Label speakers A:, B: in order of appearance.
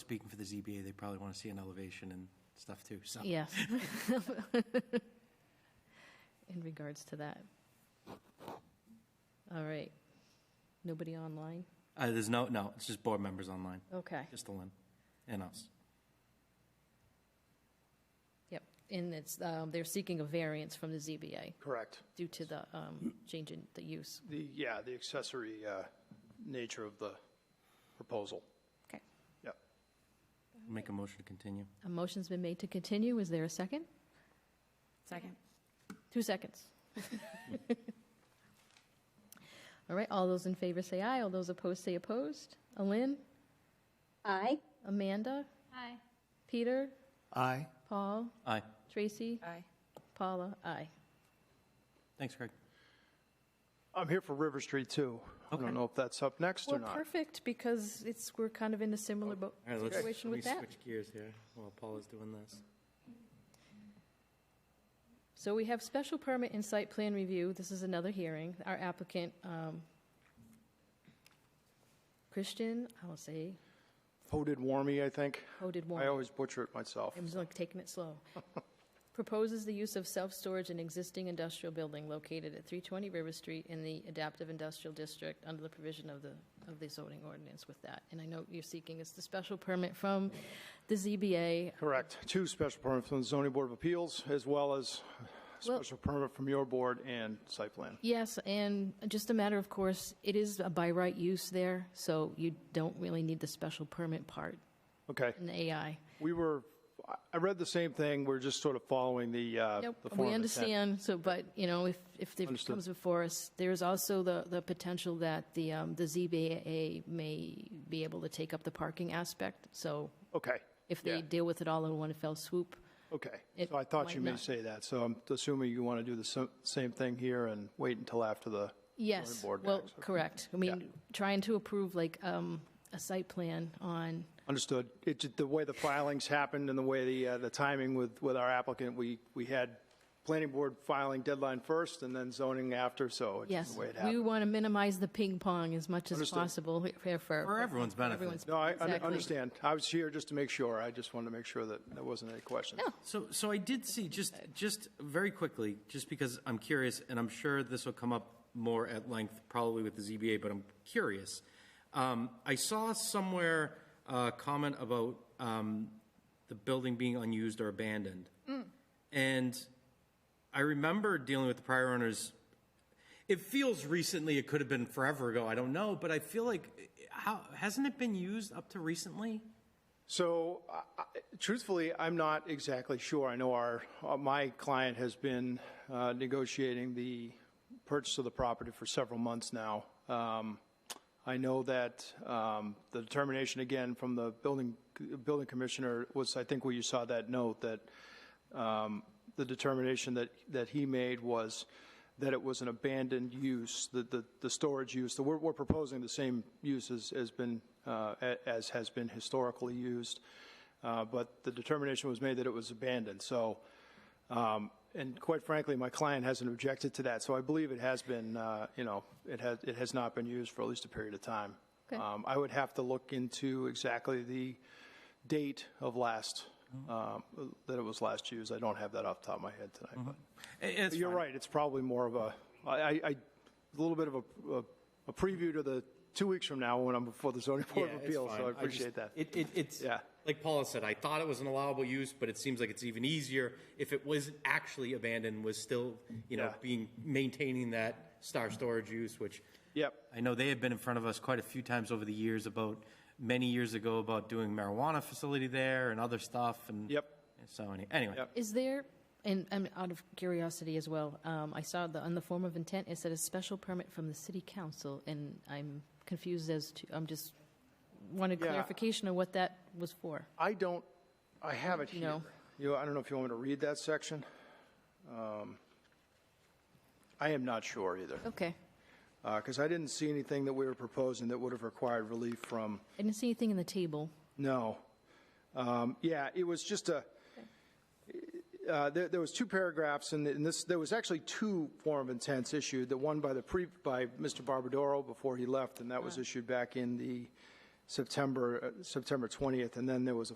A: speaking for the ZBA, they probably want to see an elevation and stuff too, so.
B: Yes. In regards to that. All right. Nobody online?
A: Uh, there's no, no, it's just board members online,
B: Okay.
A: just the limb and us.
B: Yep. And it's, um, they're seeking a variance from the ZBA
C: Correct.
B: due to the um, change in the use.
C: The, yeah, the accessory uh, nature of the proposal.
B: Okay.
C: Yep.
A: Make a motion to continue.
B: A motion's been made to continue. Is there a second?
D: Second.
B: Two seconds. All right, all those in favor say aye. All those opposed say opposed. Alin,
E: Aye.
B: Amanda,
D: Aye.
B: Peter,
F: Aye.
B: Paul,
A: Aye.
B: Tracy,
D: Aye.
B: Paula, aye.
A: Thanks, Greg.
C: I'm here for River Street, too. I
A: Okay.
C: don't know if that's up next or
B: Well,
C: not.
B: perfect, because it's, we're kind of in a similar boat
A: All right, let's,
B: situation
A: let me
B: with that.
A: switch gears here while Paul is doing this.
B: So we have special permit and site plan review. This is another hearing. Our applicant, um, Christian, I'll say,
C: Voted Warmy, I think.
B: Hoded
C: I
B: Warren.
C: always butcher it myself.
B: I'm just like taking it slow. Proposes the use of self-storage in existing industrial building located at 320 River Street in the adaptive industrial district under the provision of the, of the zoning ordinance with that. And I know you're seeking is the special permit from the ZBA.
C: Correct. Two special permits from the zoning board of appeals, as well as
B: Well-
C: special permit from your board and site plan.
B: Yes, and just a matter of course, it is a by right use there, so you don't really need the special permit part
C: Okay.
B: in the AI.
C: We were, I- I read the same thing. We're just sort of following the, uh,
B: Nope,
C: the form
B: we
C: of intent.
B: understand, so, but, you know, if, if it
C: Understood.
B: comes before us, there is also the, the potential that the, um, the ZBA may be able to take up the parking aspect, so
C: Okay.
B: if they
C: Yeah.
B: deal with it all in one fell swoop,
C: Okay,
B: It
C: so I thought you
B: might
C: may
B: not.
C: say that, so I'm assuming you want to do the sa- same thing here and wait until after the,
B: yes,
C: board
B: well,
C: docs, okay.
B: correct. I mean, trying to approve like, um, a site plan on,
C: understood. It, ju- the way the filings happened and the way the, uh, the timing with, with our applicant, we, we had planning board filing deadline first and then zoning after, so it's just
B: yes,
C: the way it
B: we
C: happened.
B: want to minimize the ping pong as much as
C: Understood.
B: possible here for.
A: For everyone's benefit.
B: everyone's-
C: No, I un-
B: exactly.
C: understand. I was here just to make sure. I just wanted to make sure that there wasn't any questions.
A: So, so I did see, just, just very quickly, just because I'm curious, and I'm sure this will come up more at length, probably with the ZBA, but I'm curious. Um, I saw somewhere a comment about um, the building being unused or abandoned. And I remember dealing with the prior owners it feels recently. It could have been forever ago. I don't know, but I feel like how hasn't it been used up to recently?
C: So, I- I- truthfully, I'm not exactly sure. I know our, uh, my client has been uh, negotiating the purchase of the property for several months now. Um, I know that um, the determination, again, from the building, building commissioner was, I think where you saw that note, that um, the determination that, that he made was that it was an abandoned use, the, the, the storage use, the, we're, we're proposing the same use as, as been, uh, a- as has been historically used, uh, but the determination was made that it was abandoned, so, um, and quite frankly, my client hasn't objected to that, so I believe it has been, uh, you know, it has, it has not been used for at least a period of time.
B: Okay.
C: Um, I would have to look into exactly the date of last,
A: Mm-hmm.
C: um, that it was last used, I don't have that off the top of my head tonight, but.
A: It- it's
C: You're
A: Mm-hmm. fine.
C: right, it's probably more of a, I, I, I- a little bit of a, a- a preview to the, two weeks from now when I'm before the zoning board
A: Yeah,
C: of
A: it's
C: appeals,
A: fine.
C: so I
A: just-
C: appreciate that.
A: It, it, it's,
C: Yeah.
A: like Paula said, I thought it was an allowable use, but it seems like it's even easier if it was actually abandoned, was still, you know,
C: Yeah.
A: being, maintaining that star storage use, which.
C: Yep,
A: I know they have been in front of us quite a few times over the years about, many years ago about doing marijuana facility there and other stuff and.
C: Yep.
A: So any- anyway.
C: Yep.
B: Is there, and I'm out of curiosity as well, um, I saw the, on the form of intent, it said a special permit from the city council, and I'm confused as to, I'm just, wanted
C: Yeah.
B: clarification of what that was for.
C: I don't, I have it here.
B: No.
C: You, I don't know if you want me to read that section? Um, I am not sure either,
B: Okay.
C: because I didn't see anything that we were proposing that would have required relief from,
B: I didn't see anything in the table.
C: No. Um, Yeah, it was just a, uh, there there was two paragraphs, and and this, there was actually two form of intents issued, the one by the, pre by Mr. Barbadoro before he left, and that was issued back in the September, uh, September 20th, and then there was a